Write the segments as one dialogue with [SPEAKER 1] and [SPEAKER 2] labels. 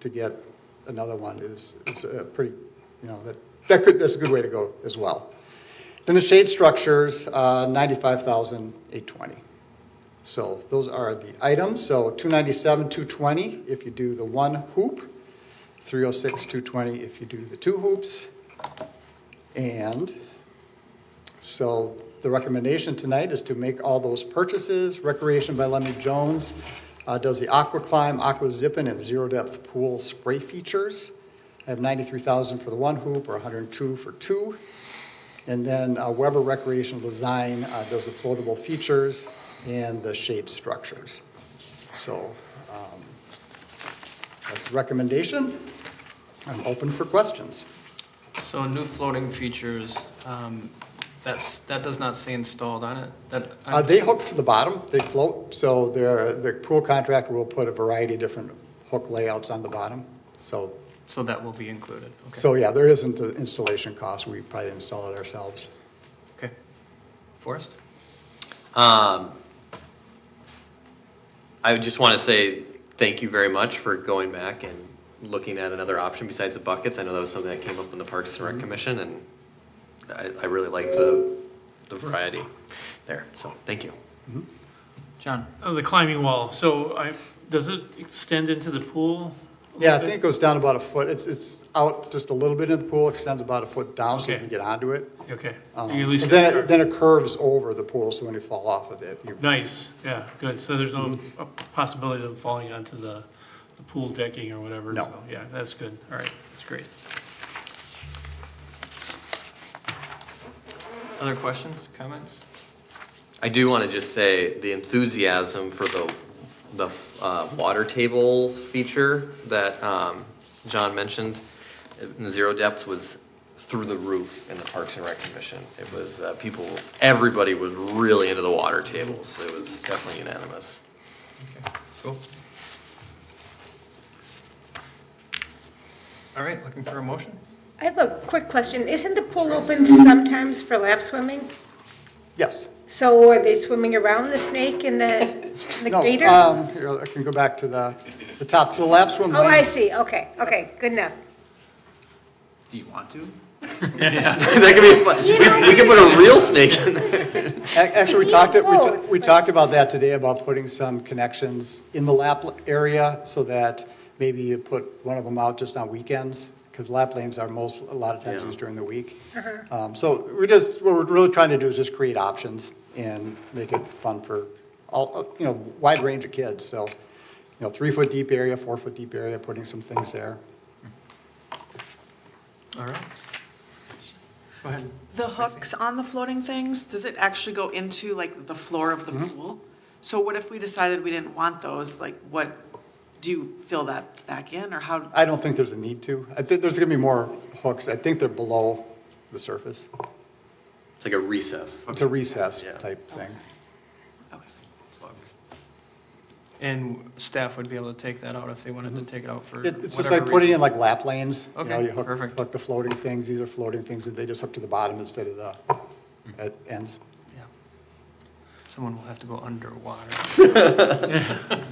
[SPEAKER 1] to get another one is, is a pretty, you know, that, that could, that's a good way to go as well. Then the shade structures, uh, ninety-five thousand, eight twenty. So those are the items. So two ninety-seven, two twenty if you do the one hoop, three oh six, two twenty if you do the two hoops. And so the recommendation tonight is to make all those purchases. Recreation by Lemmy Jones uh, does the Aqua Climb, Aqua Zippin, and Zero Depth Pool spray features. I have 93,000 for the one hoop or 102 for two. And then uh, Weber Recreation Design uh, does the floatable features and the shade structures. So um, that's the recommendation. I'm open for questions.
[SPEAKER 2] So new floating features, um, that's, that does not say installed on it? That,
[SPEAKER 1] Uh, they hook to the bottom, they float, so their, the pool contractor will put a variety of different hook layouts on the bottom. So,
[SPEAKER 2] so that will be included, okay?
[SPEAKER 1] so yeah, there isn't an installation cost, we probably install it ourselves.
[SPEAKER 2] Okay. Forrest?
[SPEAKER 3] Um, I would just want to say thank you very much for going back and looking at another option besides the buckets. I know that was something that came up in the Parks and Rec Commission, and I, I really like the, the variety there. So thank you.
[SPEAKER 2] John?
[SPEAKER 4] Oh, The climbing wall, so I, does it extend into the pool? a
[SPEAKER 1] Yeah, I
[SPEAKER 4] little
[SPEAKER 1] think it goes down about a foot, it's, it's out just a little bit in the pool, extends about a foot down so you can
[SPEAKER 4] Okay.
[SPEAKER 1] get onto it.
[SPEAKER 4] bit? Okay.
[SPEAKER 1] Um,
[SPEAKER 4] You at least
[SPEAKER 1] and
[SPEAKER 4] get
[SPEAKER 1] Then, it-
[SPEAKER 4] the-
[SPEAKER 1] then it curves over the pool, so when you fall off of it, you,
[SPEAKER 4] Nice, yeah, good, so there's no
[SPEAKER 1] Mm-hmm.
[SPEAKER 4] uh, possibility of falling onto the, the pool decking or whatever?
[SPEAKER 1] No.
[SPEAKER 4] so, Yeah, that's good, all right, that's great.
[SPEAKER 2] Other questions, comments?
[SPEAKER 3] I do want to just say the enthusiasm for the, the uh, water tables feature that um, John mentioned in Zero Depths was through the roof in the Parks and Rec Commission. It was, uh, people, everybody was really into the water tables. It was definitely unanimous.
[SPEAKER 2] Okay, cool. All right, looking for a motion?
[SPEAKER 5] I have a quick question. Isn't the pool open sometimes for lap swimming?
[SPEAKER 1] yes.
[SPEAKER 5] So are they swimming around the snake and the, the
[SPEAKER 1] No,
[SPEAKER 5] gator? Oh,
[SPEAKER 1] um, here, I can go back to the, the top, so lap swim lanes.
[SPEAKER 5] I see. Okay, okay, good enough.
[SPEAKER 3] Do you want to?
[SPEAKER 4] Yeah,
[SPEAKER 3] That could be, fun. we we could put a real snake in there.
[SPEAKER 1] Ac- Actually, we talked, it- we,
[SPEAKER 5] Both,
[SPEAKER 1] t- we
[SPEAKER 5] but-
[SPEAKER 1] talked about that today, about putting some connections in the lap l- area so that maybe you put one of them out just on weekends, because lap lanes are most, a lot of times
[SPEAKER 3] Yeah.
[SPEAKER 1] used during the week. Um, so we just, what we're really trying to do is just create options and make it fun for all, uh, you know, wide range of kids, so, you know, three-foot deep area, four-foot deep area, putting some things there.
[SPEAKER 2] All right. Go ahead.
[SPEAKER 6] The hooks on the floating things, does it actually go into like the floor of the
[SPEAKER 1] Mm-hmm.
[SPEAKER 6] pool? So what if we decided we didn't want those? Like what, do you fill that back in or how?
[SPEAKER 1] I don't think there's a need to. I think there's gonna be more hooks. I think they're below the surface.
[SPEAKER 3] It's like a recess.
[SPEAKER 1] It's a recess
[SPEAKER 3] Yeah.
[SPEAKER 1] type thing.
[SPEAKER 6] okay.
[SPEAKER 2] And staff would be able to take that out if they wanted to take it out for
[SPEAKER 1] Mm-hmm. It- It's just
[SPEAKER 2] whatever
[SPEAKER 1] like putting
[SPEAKER 2] reason.
[SPEAKER 1] in like lap lanes, you know,
[SPEAKER 2] Okay,
[SPEAKER 1] you hook,
[SPEAKER 2] perfect.
[SPEAKER 1] hook the floating things, these are floating things that they just hook to the bottom instead of the, at ends.
[SPEAKER 2] Yeah. Someone will have to go underwater.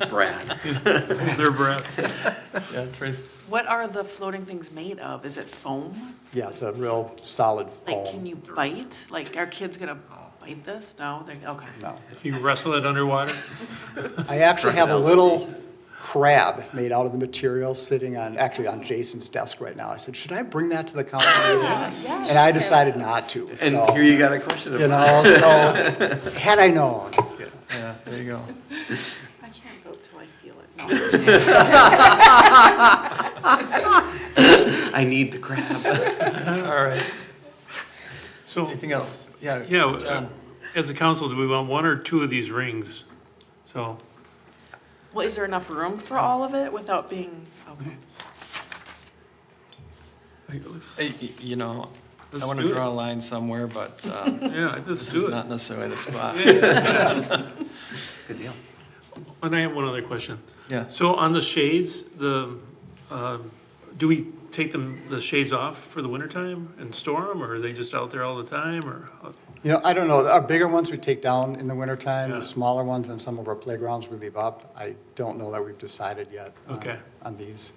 [SPEAKER 3] Brad.
[SPEAKER 4] hold their breath.
[SPEAKER 2] Yeah, Trace.
[SPEAKER 6] What are the floating things made of? Is it foam?
[SPEAKER 1] Yeah, it's a real solid
[SPEAKER 6] Like, can
[SPEAKER 1] foam.
[SPEAKER 6] you bite? Like, are kids gonna bite this? No, they're, okay.
[SPEAKER 1] No.
[SPEAKER 4] If you wrestle it underwater?
[SPEAKER 1] I actually have a
[SPEAKER 3] Crocodile.
[SPEAKER 1] little crab made out of the material sitting on, actually on Jason's desk right now. I said, should I bring that to the council meeting? And I decided not to,
[SPEAKER 3] And
[SPEAKER 1] so,
[SPEAKER 3] here
[SPEAKER 1] you
[SPEAKER 3] you got a question about.
[SPEAKER 1] know, so, had I known. you know.
[SPEAKER 2] Yeah, there you go.
[SPEAKER 6] I can't vote till I feel it. No.
[SPEAKER 3] I need the crab.
[SPEAKER 2] All right.
[SPEAKER 4] So,
[SPEAKER 2] Anything else? Yeah.
[SPEAKER 4] yeah, uh,
[SPEAKER 2] John.
[SPEAKER 4] as a council, do we want one or two of these rings? So,
[SPEAKER 6] Well, is there enough room for all of it without being, okay.
[SPEAKER 4] I- let's-
[SPEAKER 2] Hey, y- You know, I
[SPEAKER 4] Let's
[SPEAKER 2] want to
[SPEAKER 4] do it.
[SPEAKER 2] draw a line somewhere, but um,
[SPEAKER 4] yeah, let's
[SPEAKER 2] this
[SPEAKER 4] do
[SPEAKER 2] is
[SPEAKER 4] it.
[SPEAKER 2] not necessarily the spot.
[SPEAKER 3] Good deal.
[SPEAKER 4] And I have one other question.
[SPEAKER 2] Yeah.
[SPEAKER 4] So on the shades, the, um, do we take them, the shades off for the wintertime and store them, or are they just out there all the time, or?
[SPEAKER 1] You know, I don't know, our bigger ones we take down in the wintertime,
[SPEAKER 4] Yeah.
[SPEAKER 1] the smaller ones on some of our playgrounds we leave up. I don't know that we've decided yet. uh,
[SPEAKER 4] Okay.
[SPEAKER 1] On these.